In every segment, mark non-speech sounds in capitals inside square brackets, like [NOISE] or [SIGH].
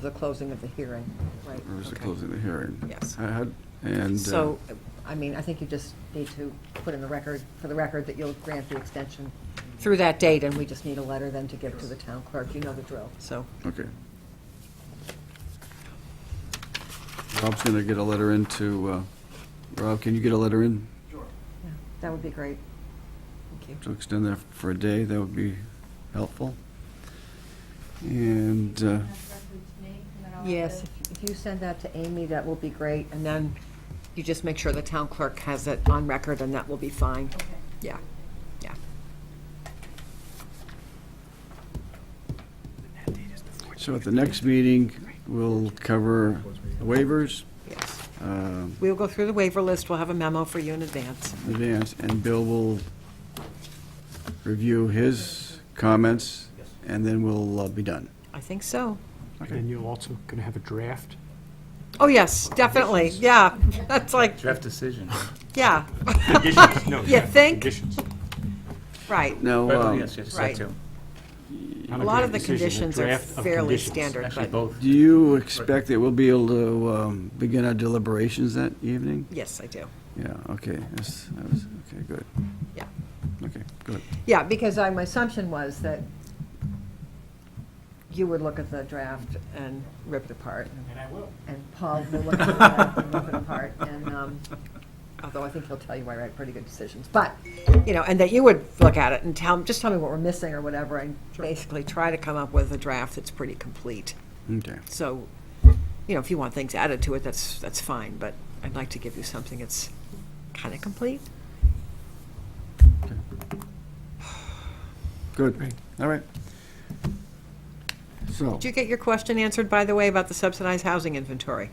The closing of the hearing, right. Or is it okay. closing the hearing? Yes. I had- And. uh, So, I mean, I think you just need to put in the record, for the record, that you'll grant the extension through that date, and we just need a letter then to give to the town clerk, you know the drill, so. Okay. Rob's going to get a letter in to, uh, Rob, can you get a letter in yeah, That would be great. Thank you. to extend that for a day? That would be helpful. And, uh, Yes, if- if you send that to Amy, that will be great, and then you just make sure the town clerk has it on record, and that will be fine. Yeah, yeah. so at the next meeting, we'll cover waivers, Yes. um, We'll go through the waiver list, we'll have a memo for you in advance. advance, and Bill will review his comments, and then we'll uh, be done. I think so. And you're also going to have a draft? Oh, yes, definitely, yeah, [LAUGHS] that's like, Draft decision. Oh, yeah, [LAUGHS] Conditions, no. You think? Conditions. right. Now, Well, um, yes, yes, Right. that too. Not A lot of draft the decision, a conditions are draft of fairly conditions. standard, Actually, but, both. Do you expect that we'll be able to um, begin our deliberations that evening? yes, I do. Yeah, okay, yes, that was, okay, good. Yeah. Okay, good. Yeah, because I, my assumption was that you would look at the draft and rip it apart, And I will. and Paul will look at the draft and rip it apart, and, um, although I think he'll tell you I write pretty good decisions, but, you know, and that you would look at it and tell, just tell me what we're missing or whatever, and basically try to come up with a draft that's pretty complete. Okay, So, you know, if you want things added to it, that's, that's fine, but I'd like to give you something that's kind of complete. good, all right. So, Did you get your question answered, by the way, about the subsidized housing inventory?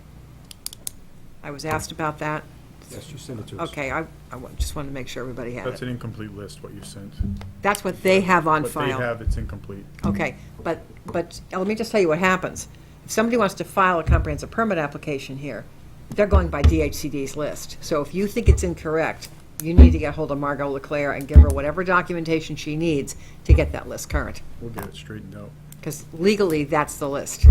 I was asked about that. Yes, you send it to us. Okay, I, I wa- just wanted to make sure everybody had That's an it. incomplete list, what you sent. That's what they have on What they file. have, it's incomplete. Okay, but, but uh, let me just tell you what happens. If somebody wants to file a comprehensive permit application here, they're going by DHCD's list. So if you think it's incorrect, you need to get hold of Margot Leclaire and give her whatever documentation she needs to get that list current. We'll get it straightened out. Because legally, that's the list.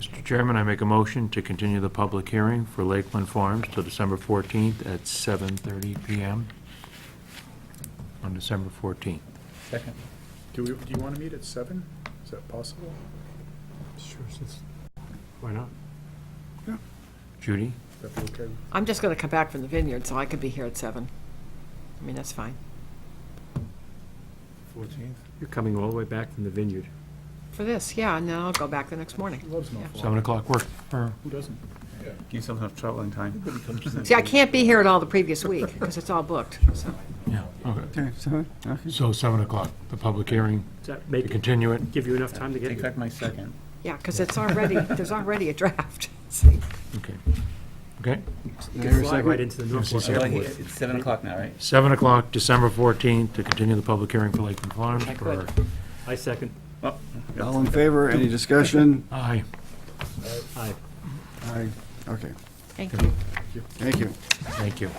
Mr. Chairman, I make a motion to continue the public hearing for Lakeland Farms till December 14th at 7:30 PM on December 14th. Second. Do we, do you want to meet at seven? Is that possible? Sure, since- Why not? Judy? Is that okay? I'm just going to come back from the vineyard, so I could be here at seven. I mean, that's fine. Fourteenth? You're coming all the way back from the vineyard. For this, yeah, and then I'll go back the next morning. Loves no fault. 7 o'clock work for, Who doesn't? Give yourself enough traveling time. See, I can't be here at all the previous week, because it's all booked, so. yeah, okay. okay, so, okay, So 7 o'clock, the public hearing, Does that to make, it- continue it. give you enough time to get Take here? back my second. Yeah, because it's already, there's already a draft. [LAUGHS] Okay. Okay? Can I hear a Fly right second? into the Norfolk Yeah. airport. It's seven o'clock now, right? 7 o'clock, December 14th, to continue the public hearing for Lakeland Farms for, I second. all in favor, any discussion? aye. Aye. Aye, okay, Thank you. thank you. Thank you.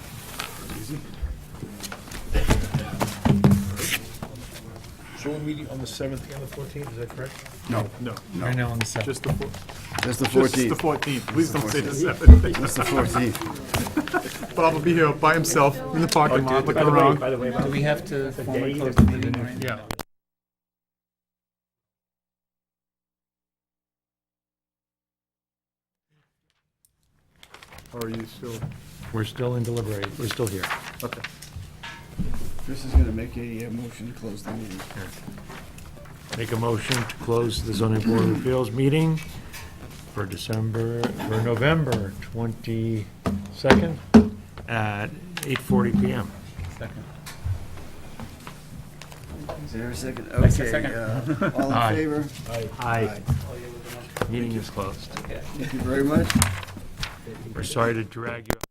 So we're meeting on the 7th and the 14th, is that correct? No, No, Right now on the 7th. just the four, that's the just the 14th, fourteenth. Please don't say the 14th. seventh. that's the 14th. Bob will be here by himself in the parking lot looking By the way, around. by the way, about Do we have to the formally day close of the the meeting vineyard. right Yeah. Or are you still, We're still in deliberate, we're still here. okay. Chris is going to make a uh, motion to close the meeting. Make a motion to close the zoning board of appeals meeting for December, for November 22nd at 8:40 PM. Second. Is there a second? That's the Okay, second. uh, all in Aye. favor, Aye. Meeting is closed. thank you very much. We're sorry to drag you.